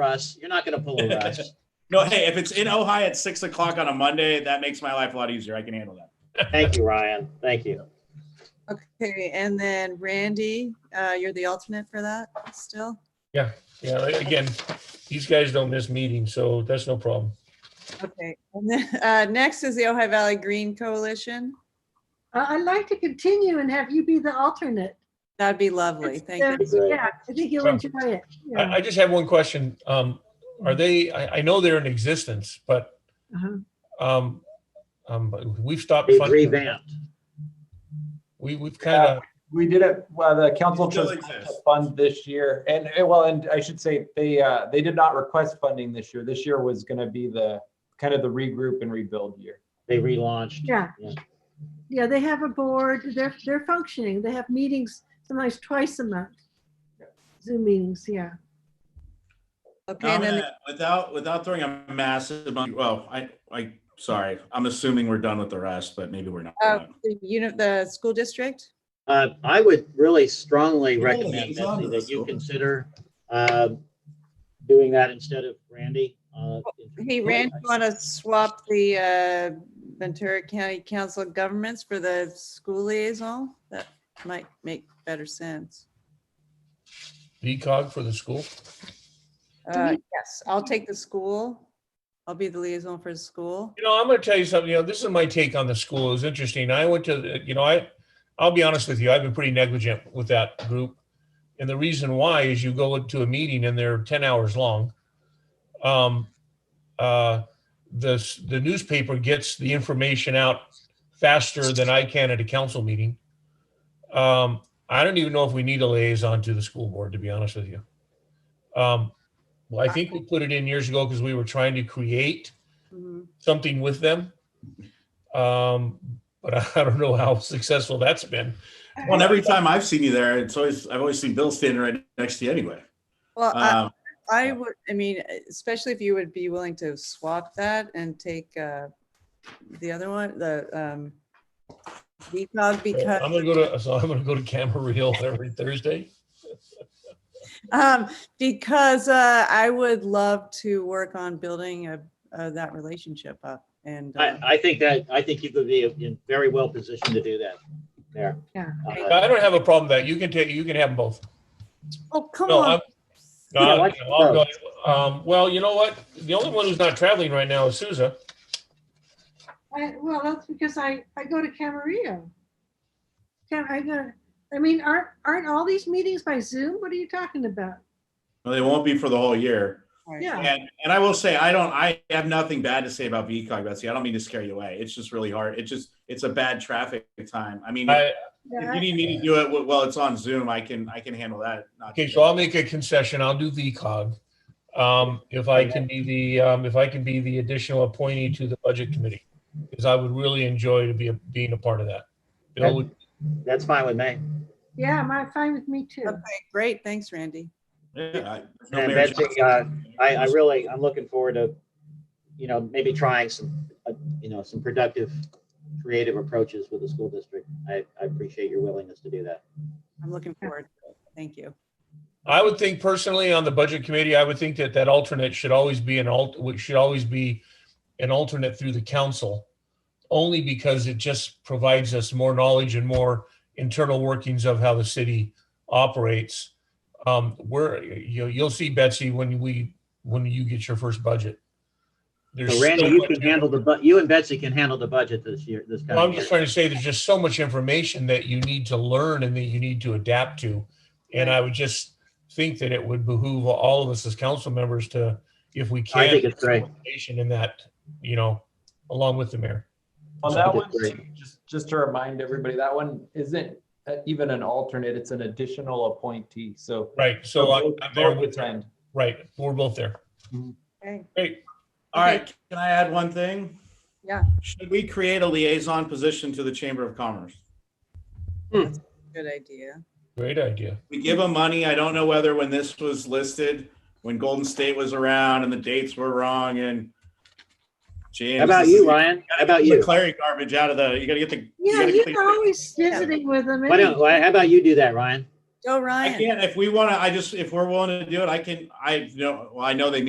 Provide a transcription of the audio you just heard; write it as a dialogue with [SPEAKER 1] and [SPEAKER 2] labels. [SPEAKER 1] Russ. You're not going to pull a Russ.
[SPEAKER 2] No, hey, if it's in Ojai at six o'clock on a Monday, that makes my life a lot easier. I can handle that.
[SPEAKER 1] Thank you, Ryan. Thank you.
[SPEAKER 3] Okay, and then Randy, uh, you're the alternate for that still?
[SPEAKER 4] Yeah, like, again, these guys don't miss meetings, so that's no problem.
[SPEAKER 3] Okay, and then, uh, next is the Ojai Valley Green Coalition.
[SPEAKER 5] I- I'd like to continue and have you be the alternate.
[SPEAKER 3] That'd be lovely. Thank you.
[SPEAKER 5] It's- Yeah, I think you'll enjoy it.
[SPEAKER 4] I,
[SPEAKER 5] Yeah.
[SPEAKER 4] I just have one question. Um, are they, I, I know they're in existence, but,
[SPEAKER 5] Uh-huh.
[SPEAKER 4] um, um, we've stopped
[SPEAKER 1] We've
[SPEAKER 4] funding.
[SPEAKER 1] revamped.
[SPEAKER 4] We, we've kind of,
[SPEAKER 6] We did it, well, the council
[SPEAKER 2] It still
[SPEAKER 6] chose not to
[SPEAKER 2] exists.
[SPEAKER 6] fund this year, and, eh, well, and I should say, they, uh, they did not request funding this year. This year was gonna be the, kind of the regroup and rebuild year.
[SPEAKER 1] They relaunched.
[SPEAKER 5] Yeah.
[SPEAKER 1] Yeah.
[SPEAKER 5] Yeah, they have a board, they're, they're functioning. They have meetings sometimes twice a month. Zoom meetings, yeah.
[SPEAKER 3] Okay,
[SPEAKER 2] I'm
[SPEAKER 3] and then,
[SPEAKER 2] gonna- Without, without throwing a massive, amount- well, I, I, sorry, I'm assuming we're done with the rest, but maybe we're not.
[SPEAKER 3] uh, the unit, the school district?
[SPEAKER 1] Uh, I would really strongly
[SPEAKER 2] Really,
[SPEAKER 1] recommend
[SPEAKER 2] he's onto
[SPEAKER 1] Betsy, that you
[SPEAKER 2] this.
[SPEAKER 1] consider uh, doing that instead of Randy. uh, in-
[SPEAKER 3] Hey, Randy, you want to swap the, uh, Ventura County Council of Governments for the school liaison? That might make better sense.
[SPEAKER 4] VCOG for the school.
[SPEAKER 3] Uh, yes, I'll take the school. I'll be the liaison for the school.
[SPEAKER 4] You know, I'm going to tell you something. You know, this is my take on the school. It was interesting. I went to, the- you know, I, I'll be honest with you. I've been pretty negligent with that group, and the reason why is you go to a meeting and they're ten hours long. Um, uh, the s- the newspaper gets the information out faster than I can at a council meeting. Um, I don't even know if we need a liaison to the school board, to be honest with you. Um, well, I think we put it in years ago because we were trying to create
[SPEAKER 3] Mhm.
[SPEAKER 4] something with them. Um, but I, I don't know how successful that's been.
[SPEAKER 2] Well, and every time I've seen you there, it's always, I've always seen Bill standing right next to you anyway.
[SPEAKER 3] Well, I-
[SPEAKER 2] Um,
[SPEAKER 3] I would, I mean, e, especially if you would be willing to swap that and take uh the other one, the um VCOG
[SPEAKER 4] I'm
[SPEAKER 3] because,
[SPEAKER 4] gonna go to so I'm gonna go to Camarillo every Thursday.
[SPEAKER 3] um, because uh I would love to work on building a, uh, that relationship up and.
[SPEAKER 1] I,
[SPEAKER 3] uh,
[SPEAKER 1] I think that, I think you could be in very well positioned to do that there.
[SPEAKER 5] Yeah.
[SPEAKER 1] Uh,
[SPEAKER 4] I don't have a problem with that you can take you can have them both.
[SPEAKER 3] Oh, come
[SPEAKER 4] No, I'm
[SPEAKER 3] on.
[SPEAKER 4] no,
[SPEAKER 1] Yeah,
[SPEAKER 4] I'm-
[SPEAKER 1] why not
[SPEAKER 4] I'll go- um, well, you know what? The only one who's not traveling right now is Souza.
[SPEAKER 5] I, well, that's because I, I go to Camarillo. Cam, I go, I mean, aren't, aren't all these meetings by Zoom? What are you talking about?
[SPEAKER 2] well, They won't be for the whole year.
[SPEAKER 3] Right.
[SPEAKER 5] Yeah.
[SPEAKER 2] And, and I will say, I don't, I have nothing bad to say about VCOG, Betsy. I don't mean to scare you away. It's just really hard. It just, it's a bad traffic time. I mean,
[SPEAKER 4] I,
[SPEAKER 2] if you
[SPEAKER 5] Yeah,
[SPEAKER 2] need me to do it while it's on Zoom, I can, I can handle that. Not-
[SPEAKER 4] okay, so I'll make a concession. I'll do VCOG. Um, if I can be the um, if I can be the additional appointee to the budget committee, because I would really enjoy to be a, being a part of that. Bill would
[SPEAKER 1] That's fine with me.
[SPEAKER 5] Yeah, my, fine with me too.
[SPEAKER 3] Okay, great. Thanks, Randy.
[SPEAKER 2] Yeah, I- there's no
[SPEAKER 1] And
[SPEAKER 2] marriage-
[SPEAKER 1] Betsy, uh, I, I really, I'm looking forward to, you know, maybe trying some, uh, you know, some productive, creative approaches with the school district. I, I appreciate your willingness to do that.
[SPEAKER 3] I'm looking forward. to it. Thank you.
[SPEAKER 4] I would think personally on the budget committee, I would think that that alternate should always be an alt, which should always be an alternate through the council. Only because it just provides us more knowledge and more internal workings of how the city operates. Um, where, you, you'll see Betsy when we, when you get your first budget. There's
[SPEAKER 1] So Randy,
[SPEAKER 4] so
[SPEAKER 1] you
[SPEAKER 4] much-
[SPEAKER 1] can handle the, bu- you and Betsy can handle the budget this year, this
[SPEAKER 4] well, I'm
[SPEAKER 1] coming
[SPEAKER 4] just
[SPEAKER 1] year.
[SPEAKER 4] trying to say, there's just so much information that you need to learn and that you need to adapt to. And I would just think that it would behoove all of us as council members to, if we can.
[SPEAKER 1] I think it's great.
[SPEAKER 4] participation In that, you know, along with the mayor.
[SPEAKER 6] On
[SPEAKER 1] So
[SPEAKER 6] that
[SPEAKER 1] we
[SPEAKER 6] one,
[SPEAKER 1] did
[SPEAKER 6] too, just, just to remind everybody, that one isn't uh, even an alternate, it's an additional appointee, so.
[SPEAKER 4] Right, so
[SPEAKER 2] uh,
[SPEAKER 4] I'm I'm there
[SPEAKER 6] Both
[SPEAKER 4] with,
[SPEAKER 6] attend.
[SPEAKER 4] right, we're both there.
[SPEAKER 1] Mm-hmm.
[SPEAKER 3] Okay.
[SPEAKER 4] Great,
[SPEAKER 2] All right, can I add one thing?
[SPEAKER 3] Yeah.
[SPEAKER 2] Should we create a liaison position to the Chamber of Commerce?
[SPEAKER 3] Good idea.
[SPEAKER 4] great idea.
[SPEAKER 2] We give them money. I don't know whether when this was listed, when Golden State was around and the dates were wrong and James.
[SPEAKER 1] How about
[SPEAKER 2] this is-
[SPEAKER 1] you, Ryan? How about
[SPEAKER 2] Get the
[SPEAKER 1] you?
[SPEAKER 2] Clary garbage out of the, you gotta get the.
[SPEAKER 5] Yeah,
[SPEAKER 2] gotta
[SPEAKER 5] you're
[SPEAKER 2] clean-
[SPEAKER 5] always visiting with them.
[SPEAKER 1] Why don't, why- how about you do that, Ryan?
[SPEAKER 3] Joe
[SPEAKER 2] I
[SPEAKER 3] Ryan.
[SPEAKER 2] can't, if we want to, I just, if we're willing to do it, I can, I know, well, I know they meet